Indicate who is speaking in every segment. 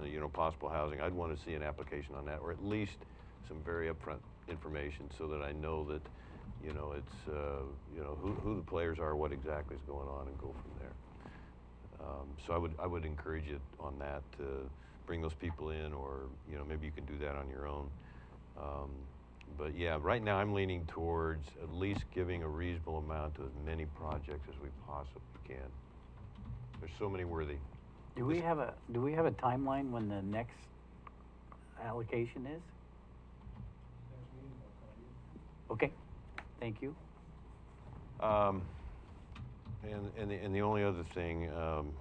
Speaker 1: uh, you know, possible housing, I'd want to see an application on that, or at least some very upfront information so that I know that, you know, it's, uh, you know, who, who the players are, what exactly is going on, and go from there. Um, so I would, I would encourage you on that to bring those people in, or, you know, maybe you can do that on your own. Um, but yeah, right now I'm leaning towards at least giving a reasonable amount to as many projects as we possibly can. There's so many worthy.
Speaker 2: Do we have a, do we have a timeline when the next allocation is? Okay, thank you.
Speaker 1: Um, and, and, the, and the only other thing, um,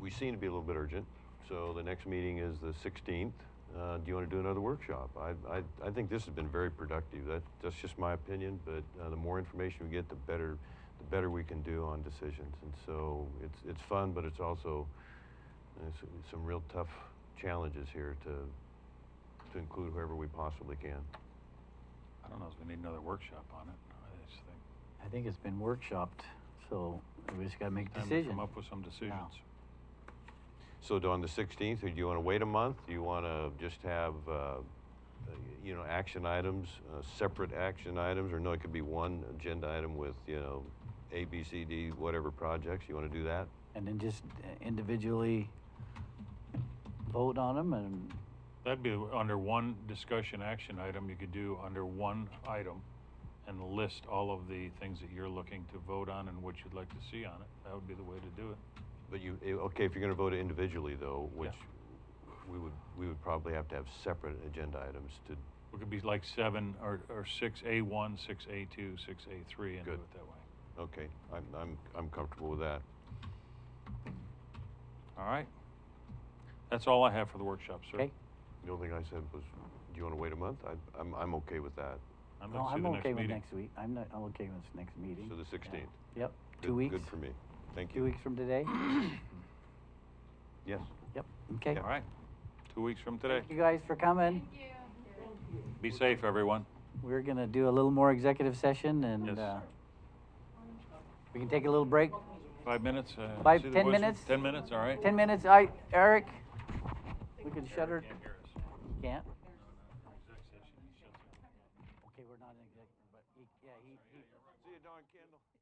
Speaker 1: we seem to be a little bit urgent. So the next meeting is the 16th. Uh, do you want to do another workshop? I, I, I think this has been very productive. That, that's just my opinion, but uh, the more information we get, the better, the better we can do on decisions. And so it's, it's fun, but it's also uh, s- some real tough challenges here to, to include whoever we possibly can.
Speaker 3: I don't know if we need another workshop on it. I just think.
Speaker 2: I think it's been workshopped, so we just gotta make a
Speaker 3: time to
Speaker 2: decision.
Speaker 3: Come up with some decisions.
Speaker 1: So do on the 16th, or do you want to wait a month? Do you want to just have, uh, uh, y- you know, action items, uh, separate action items? Or no, it could be one agenda item with, you know, A, B, C, D, whatever projects. You want to do that?
Speaker 2: And then just uh, individually vote on them and,
Speaker 3: That'd be under one discussion action item, you could do under one item and list all of the things that you're looking to vote on and what you'd like to see on it. That would be the way to do it.
Speaker 1: But you, eh, okay, if you're going to vote individually though,
Speaker 3: Yeah.
Speaker 1: which we would, we would probably have to have separate agenda items to,
Speaker 3: It could be like seven or, or six A one, six A two, six A three and do
Speaker 1: Good.
Speaker 3: it that way.
Speaker 1: okay, I'm, I'm, I'm comfortable with that.
Speaker 3: All right? That's all I have for the workshop, sir.
Speaker 2: okay?
Speaker 1: The only thing I said was, do you want to wait a month? I, I'm, I'm okay with that.
Speaker 3: I'm
Speaker 2: No,
Speaker 3: going to
Speaker 2: I'm
Speaker 3: the next
Speaker 2: okay with
Speaker 3: meeting.
Speaker 2: next week. I'm not, I'm okay with next meeting.
Speaker 1: So the
Speaker 2: Yeah.
Speaker 1: 16th.
Speaker 2: Yep,
Speaker 1: Good-
Speaker 2: two weeks,
Speaker 1: Good for me. Thank you.
Speaker 2: two weeks from today.
Speaker 1: Yes.
Speaker 2: Yep, okay.
Speaker 3: All right. Two weeks from today.
Speaker 2: Thank you guys for coming.
Speaker 3: Be safe, everyone.
Speaker 2: We're gonna do a little more executive session
Speaker 3: Yes.
Speaker 2: and, uh, we can take a little break.
Speaker 3: Five minutes? uh,
Speaker 2: Five-
Speaker 3: see the
Speaker 2: 10
Speaker 3: boys-
Speaker 2: minutes?
Speaker 3: Ten minutes, all right?
Speaker 2: Ten minutes, I, Eric, we can shut her,
Speaker 3: Can't hear us.
Speaker 2: can't? Okay, we're not in executive, but he, yeah, he, he.
Speaker 1: See you, Don Kendall.